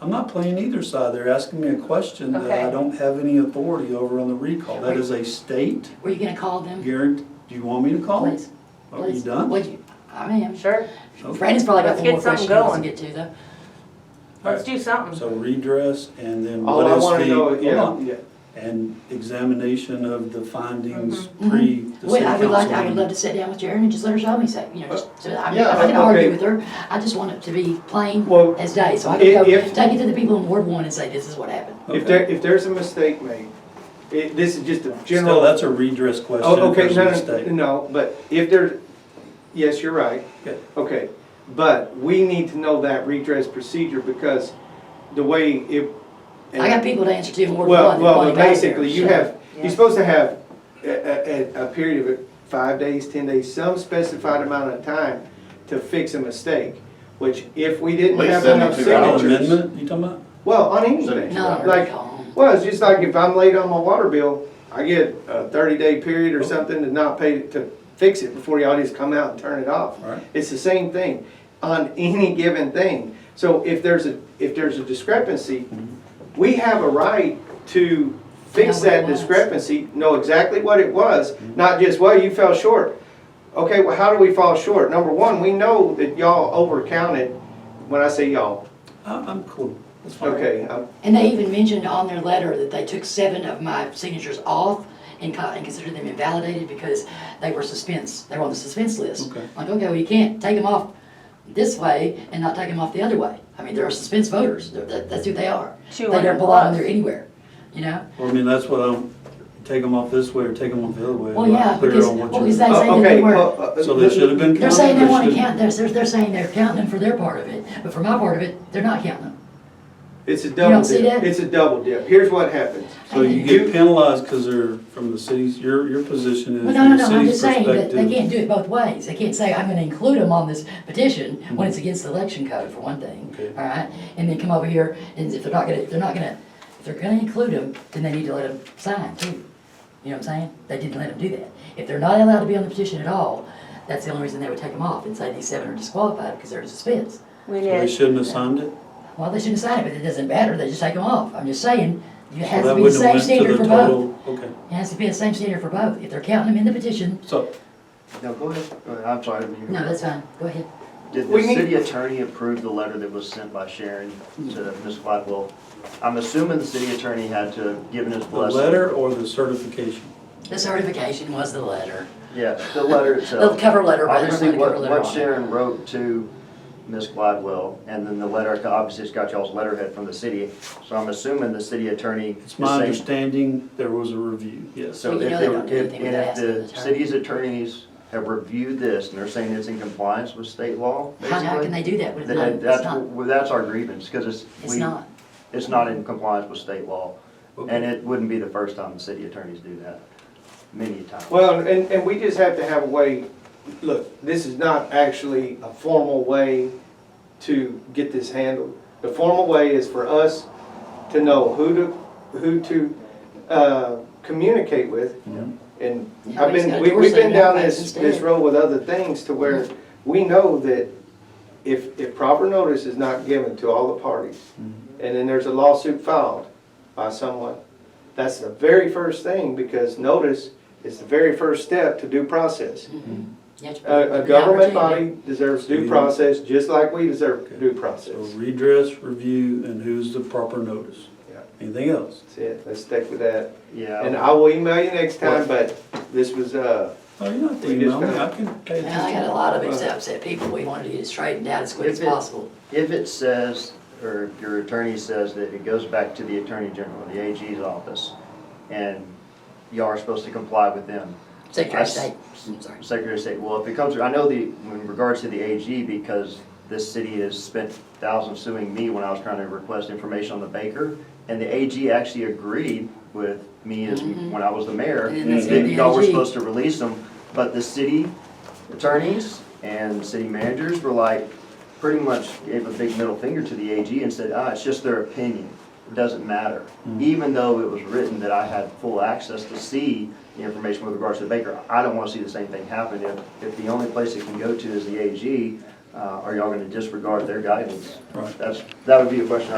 I'm not playing either side. They're asking me a question that I Okay. don't have any authority over on the recall. That is a state Were you gonna call them? guarantee. Do you want me to call? Please, Oh, Are you please. done? Would you, I am. Sure, Brandon's probably Let's got one get more question he something wants to get to though. let's do something. So redress and then All what I is wanna the? know, hold yeah, on. yeah, And examination of the findings pre the Well, city I would like, I would council. love to sit down with Jerry and just let her show me, so, you know, just, so I mean, Uh, Yeah, I can argue okay. with her. I just want it to be plain Well, as day, so I can i- go, if- take it to the people in Ward One and say, this is what happened. Okay. if there, if there's a mistake made, it, this is just a general. Still, that's a redress question. Oh, if okay, there's a no, mistake. no, no, but if there, yes, you're right. Okay. Okay, but we need to know that redress procedure because the way it. I got people to answer to in Ward One. Well, that well, wanted but to go there, basically, you so- have, Yeah. you're supposed to have a, a, a- a period of five days, ten days, some specified amount of time to fix a mistake, which if we didn't Like have enough 72 hours. An signatures. Amendment, you talking about? Well, on anything, No, like, well, it's just like if I'm late on my water bill, I get a thirty-day period Oh. or something to not pay, to fix it before y'all just come out and turn it off. Right. It's the same thing on any given thing. So if there's a, if there's a discrepancy, Mm-hmm. we have a right to fix Know what it that was. discrepancy, know exactly what it was, Mm-hmm. not just, well, you fell short. Okay, well, how do we fall short? Number one, we know that y'all overcounted, when I say y'all, I'm, I'm cool. That's fine. okay, I'm- And they even mentioned on their letter that they took seven of my signatures off and co- and considered them invalidated because they were suspense, they were on the suspense list. Okay. Like, okay, well, you can't take them off this way and not take them off the other way. I mean, they're suspense voters, They're- that- that's who they are. Two They don't hundred belong plus. there anywhere, you know? Well, I mean, that's what I'm, take them off this way or take them off the other way. Well, I'm not yeah, clear because- on what well, you're- because that- They say Oh, that okay, they were- well, uh, So they should have been They're saying they Congress wanna did- count, they're, they're they're saying they're counting them for their part of it, but for my part of it, they're not counting them. It's a don't double see dip. that? It's a double dip. Here's what happens. So you get penalized because they're from the cities, your, your position is Well, no, no, from the no, I'm city's just saying that they perspective. can't do it both ways. They can't say, I'm gonna include them on this petition when it's against the election code, for one thing, Mm-hmm. Okay. all right? And then come over here, and if they're not gonna, they're not gonna, if they're gonna include them, then they need to let them sign too. You know what I'm saying? They didn't let them do that. If they're not allowed to be on the petition at all, that's the only reason they would take them off and say these seven are disqualified because they're in suspense. We They did, shouldn't have signed it? Well, they shouldn't sign it, but it doesn't matter, they just take them off. I'm just saying, it Well, has to that be the wouldn't have same went to standard the for both. total. Okay, It has to be the same standard for both. If they're counting them in the petition, so, No, go ahead. Go ahead. I'm sorry. you- no, that's fine, go ahead. Did We the need- city attorney approve the letter that was sent by Sharon to Ms. Blackwell? I'm assuming the city attorney had to have given his the blessing. letter or the certification? The certification was the letter. Yeah, the letter The itself. cover letter, but there's Obviously, not a cover what, letter on what it. Sharon wrote to Ms. Gladwell, and then the letter, obviously it's got y'all's letterhead from the city, so I'm assuming the city attorney is It's my saying. understanding there was a review, yes. So Well, you if know they, they don't do if, anything and without if asking the the attorney. city's attorneys have reviewed this, and they're saying it's in compliance with state law, How, basically. how can they do that when it's not, That- it's That's, not, well, that's our grievance, because it's. it's we- not? It's not in compliance with state law, and Okay. it wouldn't be the first time the city attorneys do that, many times. Well, and, and we just have to have a way, look, this is not actually a formal way to get this handled. The formal way is for us to know who to, who to, uh, communicate with. And Yeah, I've we just been, gotta we- do we've ourselves been down out this, instead. this road with other things to where we know that if, if proper notice is not given to all the parties, and then there's a lawsuit filed by someone, that's the very first thing, because notice is the very first step to due process. You have to- A, a the government opportunity. body deserves So due you- process, just like we deserve due So process. redress, review, and who's the proper notice? Yeah. Anything else? That's it, let's stick with that. And Yeah, I will email you next time, but this was, uh, Oh, you don't have to We just email me, gotta- I can pay Well, I attention. got a lot of upset people, we wanted to get it straightened out as quick as If it- possible. if it says, or if your attorney says that it goes back to the attorney general, the AG's office, and y'all are supposed to comply with them, Secretary of I s- State, I'm sorry. Secretary of State, well, if it comes, I know the, in regards to the AG, because this city has spent thousands suing me when I was trying to request information on the baker, and the AG actually agreed with me as, when I was the mayor, And that's that the y'all were AG. supposed to release them, but the city attorneys and city managers were like, pretty much gave a big middle finger to the AG and said, ah, it's just their opinion, it doesn't matter. Even though it was written that I had full access to see the information with regards to Baker, I don't wanna see the same thing happen if, if the only place it can go to is the AG, uh, are y'all gonna disregard their guidance? Right. That's, that would be a question I